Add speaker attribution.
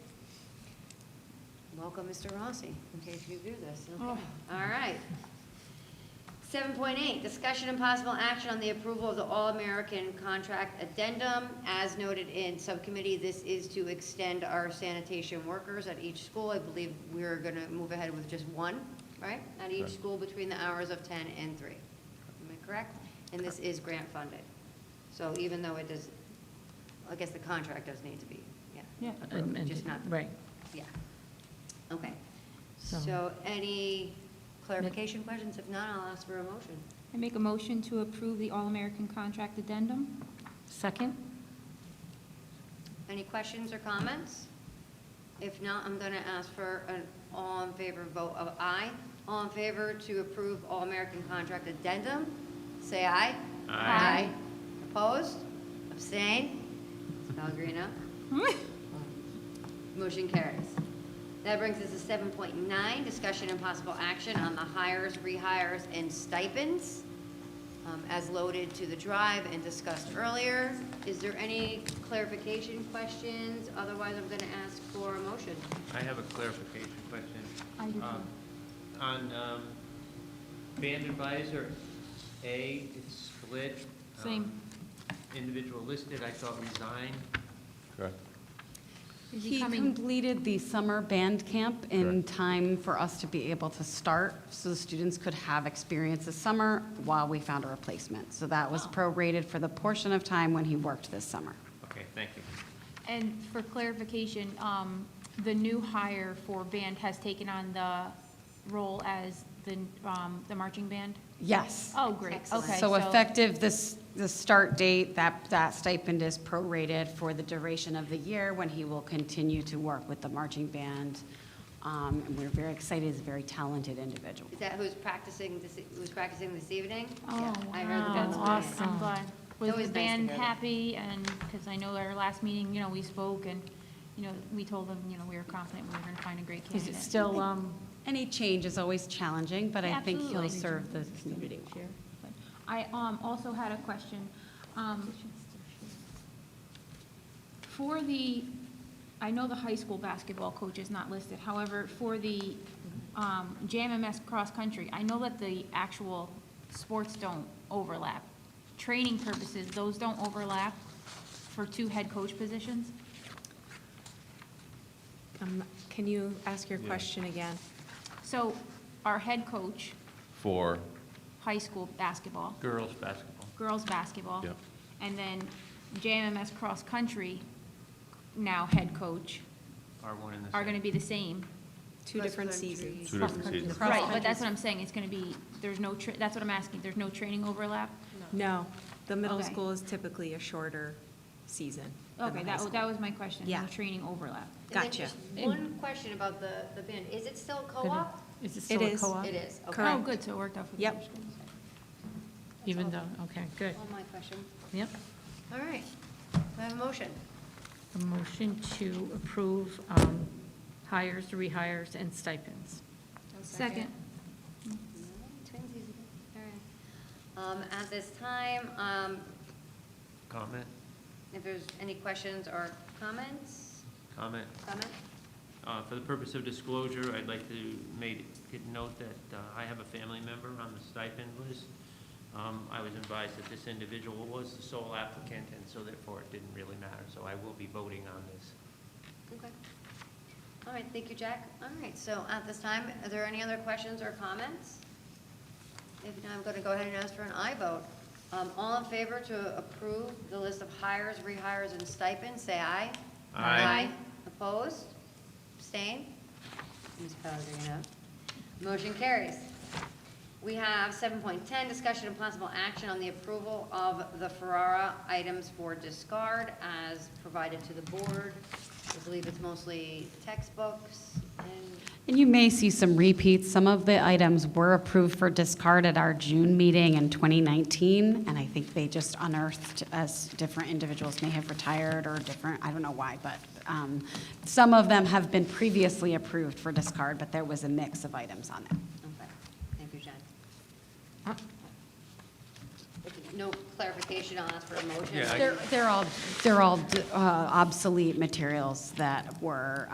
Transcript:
Speaker 1: welcome Mr. Rossi, in case you do this. Okay.
Speaker 2: Oh.
Speaker 1: All right. Seven point eight, discussion and possible action on the approval of the All-American Contract Addendum. As noted in subcommittee, this is to extend our sanitation workers at each school. I believe we're gonna move ahead with just one, right? At each
Speaker 3: Correct.
Speaker 1: school between the hours of ten and three. Am I correct? And this is grant funded. So even though it does, I guess the contract does need to be, yeah.
Speaker 2: Yeah.
Speaker 1: approved, Just not,
Speaker 4: Right.
Speaker 1: yeah. Okay.
Speaker 4: So-
Speaker 1: So any clarification questions? If not, I'll ask for a motion.
Speaker 2: I make a motion to approve the All-American Contract Addendum.
Speaker 4: Second?
Speaker 1: Any questions or comments? If not, I'm going to ask for an all in favor vote of aye. All in favor to approve All American Contract Addendum, say aye.
Speaker 2: Aye.
Speaker 1: Opposed? Abstain? Pellegrino? Motion carries. That brings us to seven point nine, discussion and possible action on the hires, rehires, and stipends um, as loaded to the drive and discussed earlier. Is there any clarification questions? Otherwise, I'm gonna ask for a motion.
Speaker 3: I have a clarification question.
Speaker 2: I do too.
Speaker 3: Um, On um, band advisor A, it's split. um,
Speaker 2: Same.
Speaker 3: Individual listed, I thought resigned.
Speaker 5: Correct.
Speaker 2: Is
Speaker 6: He
Speaker 2: coming?
Speaker 6: completed the summer band camp in time for us to be able to start, so the students could have experience this summer while we found a replacement. So that was prorated for the portion of time when he worked this summer.
Speaker 3: Okay, thank you.
Speaker 2: And for clarification, um, the new hire for band has taken on the role as the, um, the marching band?
Speaker 6: Yes.
Speaker 2: Oh, great,
Speaker 1: Excellent.
Speaker 2: okay.
Speaker 6: So effective this, the start date, that, that stipend is prorated for the duration of the year when he will continue to work with the marching band. Um, And we're very excited, he's a very talented individual.
Speaker 1: Is that who's practicing this, who's practicing this evening?
Speaker 2: Oh,
Speaker 1: Yeah, I heard the bell
Speaker 2: wow, that's
Speaker 1: in the band.
Speaker 2: awesome. I'm glad. Was
Speaker 1: always nice to
Speaker 2: the band
Speaker 1: hear that.
Speaker 2: happy? And, because I know our last meeting, you know, we spoke and, you know, we told them, you know, we were confident we were going to find a great
Speaker 4: Is it
Speaker 2: candidate.
Speaker 4: still, um,
Speaker 6: Any change is always challenging, but I think he'll
Speaker 2: Absolutely.
Speaker 6: serve the community well.
Speaker 2: Sure. I um, also had a question. Um, For the, I know the high school basketball coach is not listed, however, for the um, JMMS cross-country, I know that the actual sports don't overlap. Training purposes, those don't overlap for two head coach positions?
Speaker 7: Um, Can you ask your
Speaker 5: Yeah.
Speaker 7: question again?
Speaker 2: So our head coach,
Speaker 5: For,
Speaker 2: high school basketball,
Speaker 3: Girls basketball.
Speaker 2: girls' basketball.
Speaker 5: Yep.
Speaker 2: And then JMMS Cross Country, now head coach,
Speaker 3: Are one and the same.
Speaker 2: are gonna be the same.
Speaker 7: Two
Speaker 1: Cross
Speaker 7: different
Speaker 1: country.
Speaker 7: seasons.
Speaker 5: Two different seasons.
Speaker 2: Right, but that's what I'm saying, it's gonna be, there's no, tra- that's what I'm asking, there's no training overlap?
Speaker 7: No, the middle
Speaker 2: Okay.
Speaker 7: school is typically a shorter season than the
Speaker 2: Okay,
Speaker 7: high
Speaker 2: that, wa-
Speaker 7: school.
Speaker 2: that was my question, no
Speaker 7: Yeah.
Speaker 2: training overlap.
Speaker 1: And then
Speaker 7: Gotcha.
Speaker 1: just One question about the, the band. Is it still co-op?
Speaker 4: is it still a
Speaker 7: is.
Speaker 4: co-op?
Speaker 1: It is, okay.
Speaker 2: Oh,
Speaker 7: Correct.
Speaker 2: good, so it worked out for the
Speaker 7: Yep.
Speaker 2: other schools.
Speaker 4: Even though, okay, good.
Speaker 1: All my questions.
Speaker 4: Yep.
Speaker 1: All right. Do I have a motion?
Speaker 4: A motion to approve um, hires, rehires, and stipends.
Speaker 2: Second.
Speaker 1: Twinsies. All right. Um, At this time, um,
Speaker 3: Comment,
Speaker 1: if there's any questions or comments,
Speaker 3: comment.
Speaker 1: comment?
Speaker 3: Uh, For the purpose of disclosure, I'd like to make, could note that uh, I have a family member on the stipend list. Um, I was advised that this individual was the sole applicant, and so therefore it didn't really matter, so I will be voting on this.
Speaker 1: Okay. All right, thank you, Jack. All right, so at this time, are there any other questions or comments? If not, I'm going to go ahead and ask for an aye vote. Um, All in favor to approve the list of hires, rehires, and stipends, say aye.
Speaker 3: Aye.
Speaker 1: Opposed? Abstain? Ms. Pellegrino? Motion carries. We have 7.10, discussion and possible action on the approval of the Ferrara items for discard as provided to the board. I believe it's mostly textbooks and,
Speaker 6: And you may see some repeats. Some of the items were approved for discard at our June meeting in 2019, and I think they just unearthed as different individuals may have retired or different, I don't know why, but um, some of them have been previously approved for discard, but there was a mix of items on them.
Speaker 1: okay, thank you, Jen. If No clarification, I'll ask for a motion.
Speaker 3: Yeah, I-
Speaker 6: They're they're all, they're all uh, obsolete materials that were